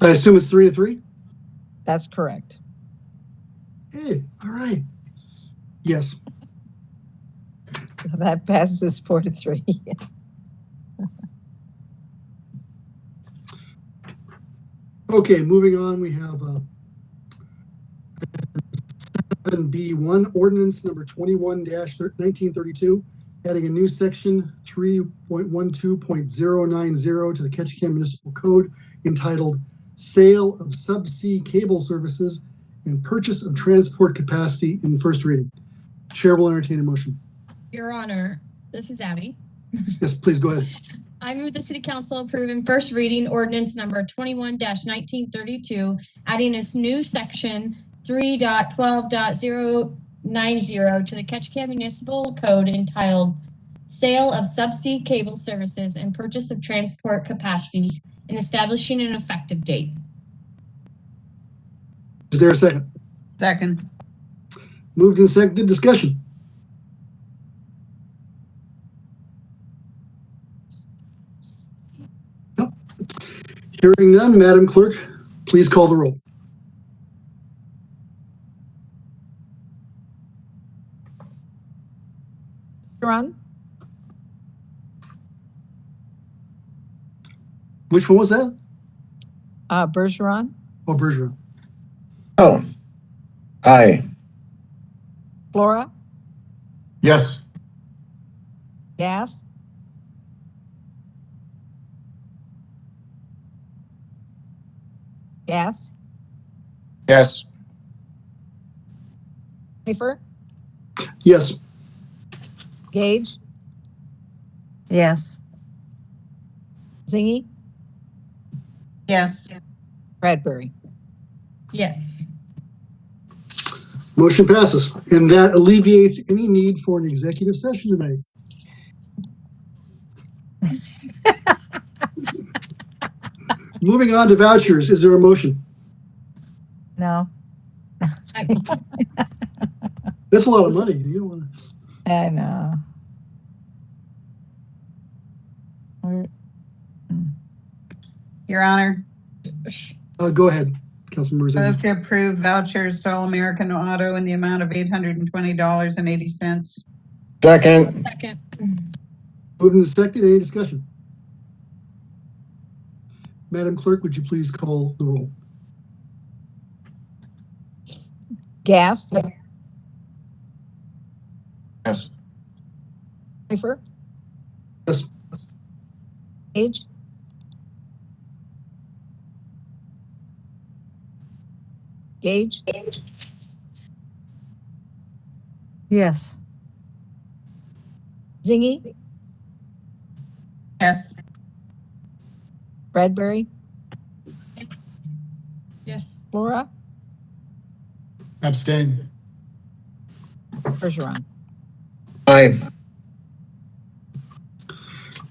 I assume it's three to three? That's correct. Hey, Eh, all right. Yes. So That passes four to three. Okay, moving on, we have, uh, seven B one, ordinance number twenty-one nineteen thirty-two, adding a new section three point one two point zero nine zero to the Ketchikan Municipal Code entitled Sale of Subsea Cable Services and Purchase of Transport Capacity in First Reading. Chair will entertain a motion. Your Honor, this is Abby. Yes, please go ahead. I move the City Council approve in first reading ordinance number twenty-one nineteen thirty-two, adding this new section three to the Ketchikan Municipal Code entitled Sale of Subsea Cable Services and Purchase of Transport Capacity and establishing an effective date. Is there a second? Second, Moved and seconded, discussion. Nope. Hearing none, Madam Clerk, please call the roll. Sharon, Which one was that? uh, Bergeron, Oh, Bergeron. Oh. Aye. Flora, Yes. Gas, Gas, Yes. Pfeiffer, Yes, Gage, Yes, Zingy, yes, Bradbury. Yes. motion passes. And that alleviates any need for an executive session tonight. Moving on to vouchers, is there a motion? no, That's a lot of money. You don't want to. I know. We're- Your Honor. Uh, go ahead, Councilmember Ziggy. Move to approve vouchers to All American Auto in the amount of $820.80. Second. Second. Moved and seconded, any discussion? Madam Clerk, would you please call the roll? Gas, Yes. Pfeiffer, Yes, Gage, Gage, Yes, Zingy, Yes, Bradbury, Yes. Yes. Flora, Abstain. Bergeron. Aye.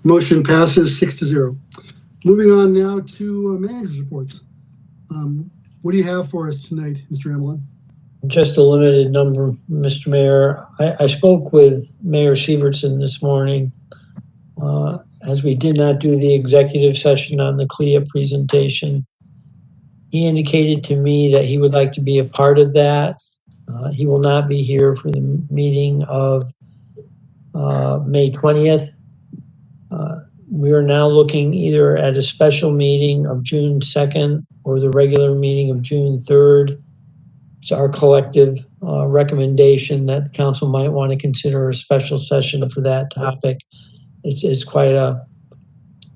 motion passes six to zero. Moving on now to uh, manager's reports. Um, What do you have for us tonight, Mr. Amlon? Just a limited number, Mr. Mayor. I, I spoke with Mayor Sievertson this morning. Uh, as we did not do the executive session on the CLIA presentation, he indicated to me that he would like to be a part of that. Uh, he will not be here for the meeting of uh, May 20th. Uh, we are now looking either at a special meeting of June 2nd or the regular meeting of June 3rd it's our collective uh, recommendation that the council might want to consider a special session for that topic. It's, it's quite a,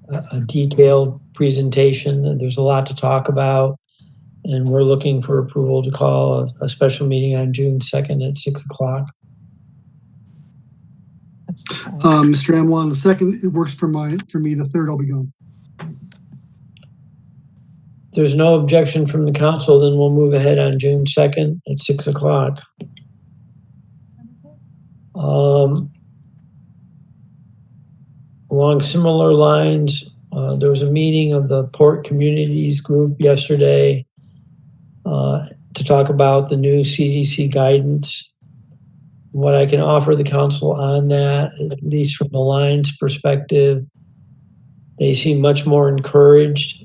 a detailed presentation. There's a lot to talk about. And we're looking for approval to call a, a special meeting on June 2nd at 6 o'clock. That's- Um, Mr. Amlon, the second, it works for mine, for me, the third, I'll be gone. If there's no objection from the council, then we'll move ahead on June 2nd at 6 o'clock. Um, Along similar lines, uh, there was a meeting of the Port Communities Group yesterday uh, to talk about the new CDC guidance. What I can offer the council on that, at least from the Lions perspective, they seem much more encouraged